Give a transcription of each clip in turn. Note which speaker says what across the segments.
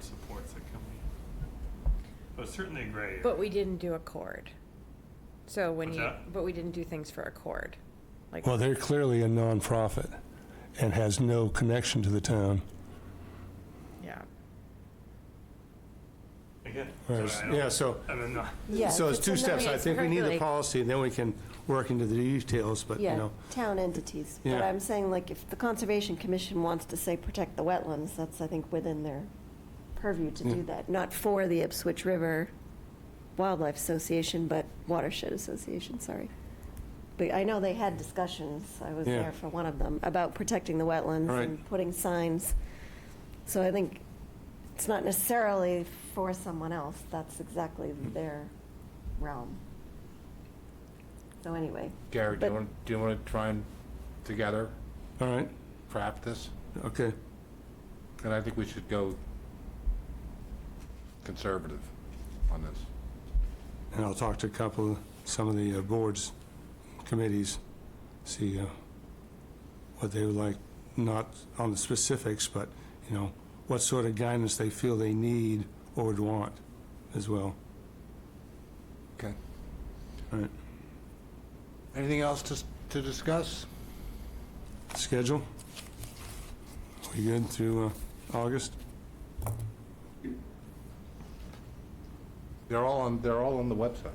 Speaker 1: supports that come in. But it's certainly a gray area.
Speaker 2: But we didn't do a chord. So when
Speaker 1: What's
Speaker 2: you,
Speaker 1: that?
Speaker 2: but we didn't do things for a chord. Like,
Speaker 3: Well, they're clearly a nonprofit and has no connection to the town.
Speaker 2: yeah.
Speaker 1: Again. so I
Speaker 3: Whereas-
Speaker 1: don't-
Speaker 3: Yeah, so,
Speaker 1: I mean, no,
Speaker 4: Yeah,
Speaker 3: so it's two
Speaker 4: a non-
Speaker 3: steps. I
Speaker 2: it's
Speaker 3: think we need the
Speaker 2: perfectly-
Speaker 3: policy, and then we can work into the details, but, you
Speaker 4: Yeah,
Speaker 3: know.
Speaker 4: town entities. But
Speaker 3: Yeah.
Speaker 4: I'm saying, like, if the Conservation Commission wants to say, protect the wetlands, that's, I think, within their purview to do that, not for the Ipswich River Wildlife Association, but Watershed Association, sorry. But I know they had discussions, I was
Speaker 3: Yeah.
Speaker 4: there for one of them, about protecting the wetlands
Speaker 3: Right.
Speaker 4: and putting signs. So I think it's not necessarily for someone else, that's exactly
Speaker 3: Mm-hmm.
Speaker 4: their realm. So anyway,
Speaker 5: Gary, do
Speaker 4: But-
Speaker 5: you want, do you want to try and together
Speaker 3: All right,
Speaker 5: craft this?
Speaker 3: okay.
Speaker 5: And I think we should go conservative on this.
Speaker 3: And I'll talk to a couple, some of the uh, boards, committees, see uh, what they would like, not on the specifics, but, you know, what sort of guidance they feel they need or would want as well.
Speaker 5: Okay.
Speaker 3: All right,
Speaker 5: Anything else to, s- to discuss?
Speaker 3: schedule? We good through uh, August?
Speaker 5: They're all on, they're all on the website.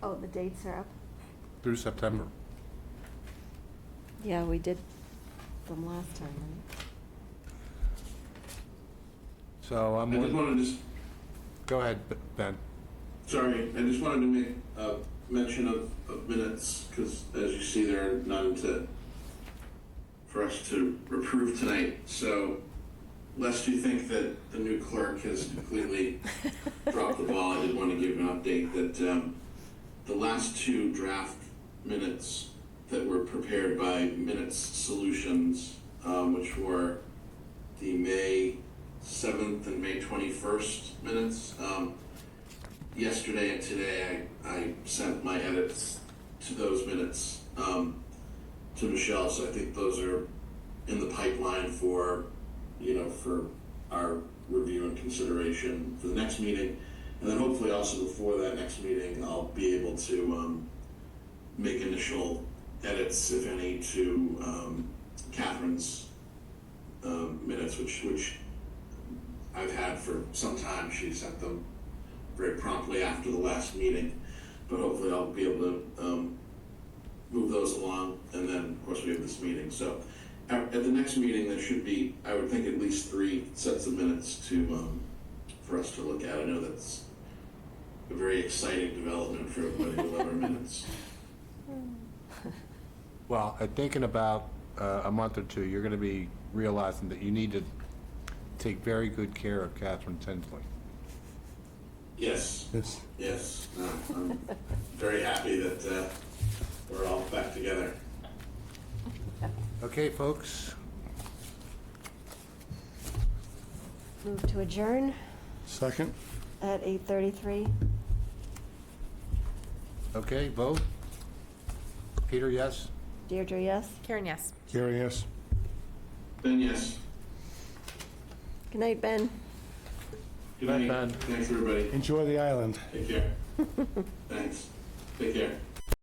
Speaker 4: oh, the dates are up?
Speaker 5: through September.
Speaker 4: Yeah, we did them last time, right?
Speaker 5: So I'm,
Speaker 6: I just
Speaker 5: wor-
Speaker 6: wanted to, s-
Speaker 5: go ahead, B- Ben.
Speaker 6: sorry, I just wanted to make a mention of, of minutes, because as you see, there are none to, for us to approve tonight, so lest you think that the new clerk has completely dropped the ball, I did want to give an update that, um, the last two draft minutes that were prepared by Minutes Solutions, um, which were the May seventh and May twenty-first minutes, um, yesterday and today I, I sent my edits to those minutes um, to Michelle, so I think those are in the pipeline for you know for our review and consideration for the next meeting, and then hopefully also before that next meeting I'll be able to um, make initial edits, if any, to um, Catherine's um, minutes, which which I've had for some time. She sent them very promptly after the last meeting, but hopefully I'll be able to um, move those along, and then, of course, we have this meeting, so at at the next meeting, there should be, I would think, at least three sets of minutes to, um, for us to look at, I know that's a very exciting development for everybody, eleven minutes.
Speaker 5: Well, I think in about uh, a month or two, you're going to be realizing that you need to take very good care of Catherine Tinsley.
Speaker 6: Yes,
Speaker 3: Yes.
Speaker 6: yes, no, I'm very happy that uh, we're all back together.
Speaker 5: Okay, folks,
Speaker 4: Move to adjourn
Speaker 3: Second?
Speaker 4: at 8:33.
Speaker 5: okay, vote. Peter, yes?
Speaker 4: Deirdre, yes?
Speaker 2: Karen, yes.
Speaker 3: Gary, yes?
Speaker 6: Then, yes,
Speaker 4: Good night, Ben.
Speaker 6: good
Speaker 5: Bye,
Speaker 6: night,
Speaker 5: Ben.
Speaker 6: thanks, everybody,
Speaker 3: Enjoy the island.
Speaker 6: take care, thanks, take care.